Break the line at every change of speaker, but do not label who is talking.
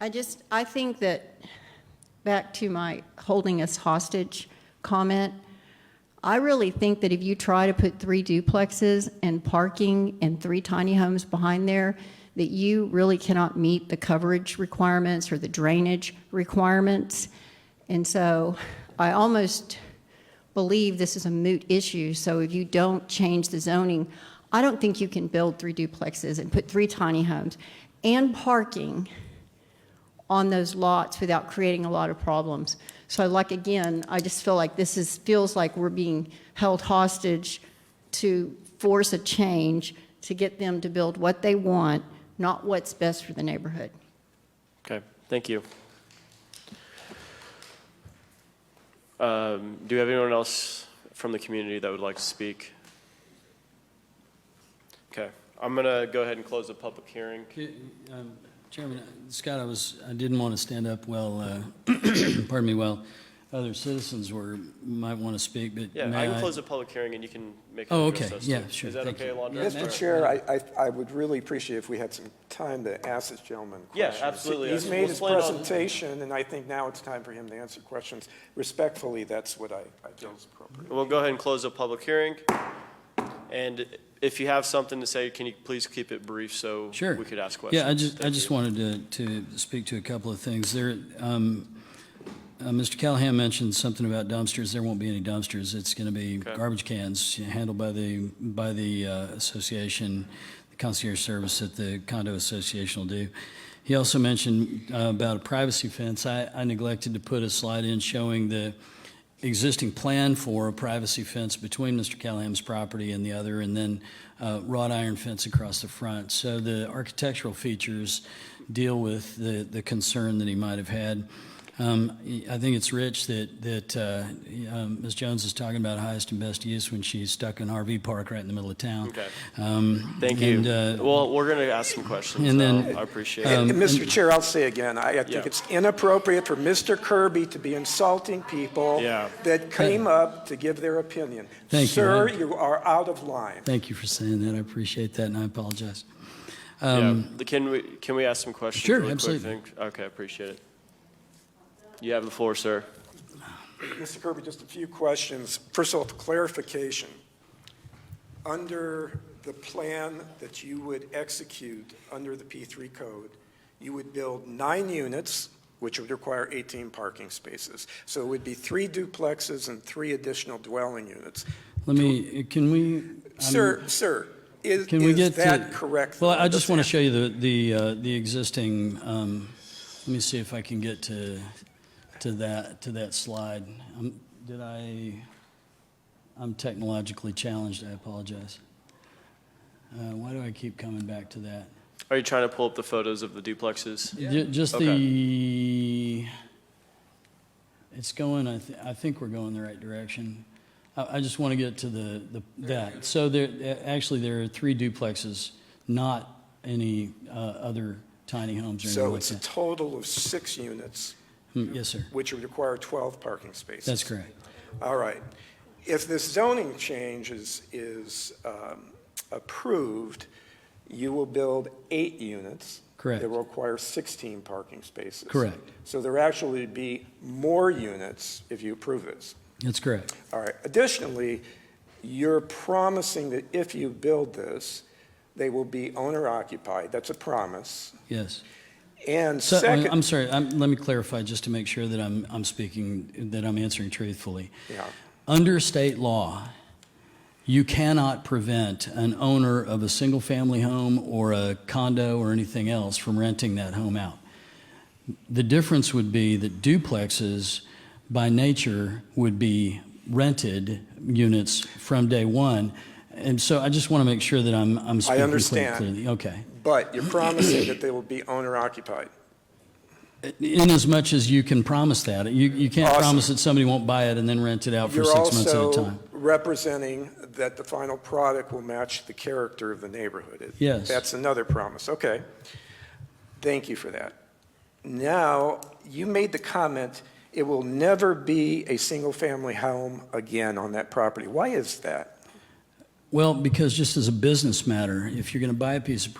I just, I think that, back to my holding us hostage comment, I really think that if you try to put three duplexes and parking and three tiny homes behind there, that you really cannot meet the coverage requirements or the drainage requirements. And so I almost believe this is a moot issue, so if you don't change the zoning, I don't think you can build three duplexes and put three tiny homes and parking on those lots without creating a lot of problems. So like, again, I just feel like this is, feels like we're being held hostage to force a change to get them to build what they want, not what's best for the neighborhood.
Okay, thank you. Um, Do we have anyone else from the community that would like to speak? Okay, I'm going to go ahead and close the public hearing.
Okay, um, Chairman, uh, Scott, I was, I didn't want to stand up while, uh, pardon me, while other citizens were, might want to speak, but
Yeah,
may
I can
I-
close the public hearing and you can make.
Oh,
an address
okay.
us
Yeah,
too.
sure.
Is that
Thank
okay,
you.
Alondra?
Mr. Chair, I, I, I would really appreciate if we had some time to ask this gentleman
Yeah,
questions.
absolutely.
He's
Let's-
made
let's
his
plan on-
presentation, and I think now it's time for him to answer questions. Respectfully, that's what I, I feel is
Um,
appropriate.
We'll go ahead and close the public hearing. And if you have something to say, can you please keep it brief so
Sure.
we could ask questions?
Yeah, I just, I
Thank
just
you.
wanted to, to speak to a couple of things. There, um, uh, Mr. Callahan mentioned something about dumpsters. There won't be any dumpsters. It's going to be
Okay.
garbage cans handled by the, by the uh, association, the concierge service that the condo association will do. He also mentioned uh, about a privacy fence. I, I neglected to put a slide in showing the existing plan for a privacy fence between Mr. Callahan's property and the other, and then uh, wrought iron fence across the front. So the architectural features deal with the, the concern that he might have had. Um, I think it's rich that, that uh, um, Ms. Jones is talking about highest and best use when she's stuck in RV park right in the middle of town.
Okay.
Um,
Thank you.
and, uh,
Well, we're going to ask some questions
and
now.
then- um,
I appreciate it.
And, and Mr. Chair, I'll say again, I, I
Yeah.
think it's inappropriate for Mr. Kirby to be insulting people
Yeah.
that came up to give their opinion.
Thank you.
Sir, you are out of line.
Thank you for saying that. I appreciate that, and I apologize. Um,
Yeah, the- can we, can we ask some questions?
Sure,
really quick?
absolutely.
Thank- Okay, I appreciate it. You have the floor, sir.
Mr. Kirby, just a few questions. First of all, for clarification. Under the plan that you would execute under the P3 code, you would build nine units, which would require 18 parking spaces. So it would be three duplexes and three additional dwelling units.
Let me, can we? I'm-
Sir, sir, is
Can we
is
get to-
that correct?
Well, I just want to show you the, the, uh, the existing, um, let me see if I can get to, to that, to that slide. Um, Did I, I'm technologically challenged, I apologize. Uh, Why do I keep coming back to that?
Are you trying to pull up the photos of the duplexes?
Ju- Just
Okay.
the, it's going, I, th- I think we're going the right direction. I, I just want to get to the, the, that. So there, a- actually, there are three duplexes, not any, uh, other tiny homes or anything
So
like
it's a
that.
total of six units,
Hmm, Yes, sir.
which would require 12 parking spaces.
That's correct.
All right. If this zoning change is, is um, approved, you will build eight units.
Correct.
That will require 16 parking spaces.
Correct.
So there actually be more units if you approve this.
That's correct.
All right. Additionally, you're promising that if you build this, they will be owner occupied. That's a promise.
Yes.
And
So, I-
second.
I'm sorry, i let me clarify just to make sure that I'm, I'm speaking, that I'm answering truthfully.
Yeah.
Under state law, you cannot prevent an owner of a single-family home or a condo or anything else from renting that home out. The difference would be that duplexes, by nature, would be rented units from day one. And so I just want to make sure that I'm, I'm speaking clear-
understand.
clearly. Okay.
But you're promising that they will be owner occupied.
In as much as you can promise that, you, you can't
Awesome.
promise that somebody won't buy it and then rent it out for
You're
six months at a
also
time.
representing that the final product will match the character of the neighborhood. It-
Yes.
That's another promise, okay. Thank you for that. Now, you made the comment, it will never be a single-family home again on that property. Why is that?
Well, because just as a business matter, if you're going to buy a piece of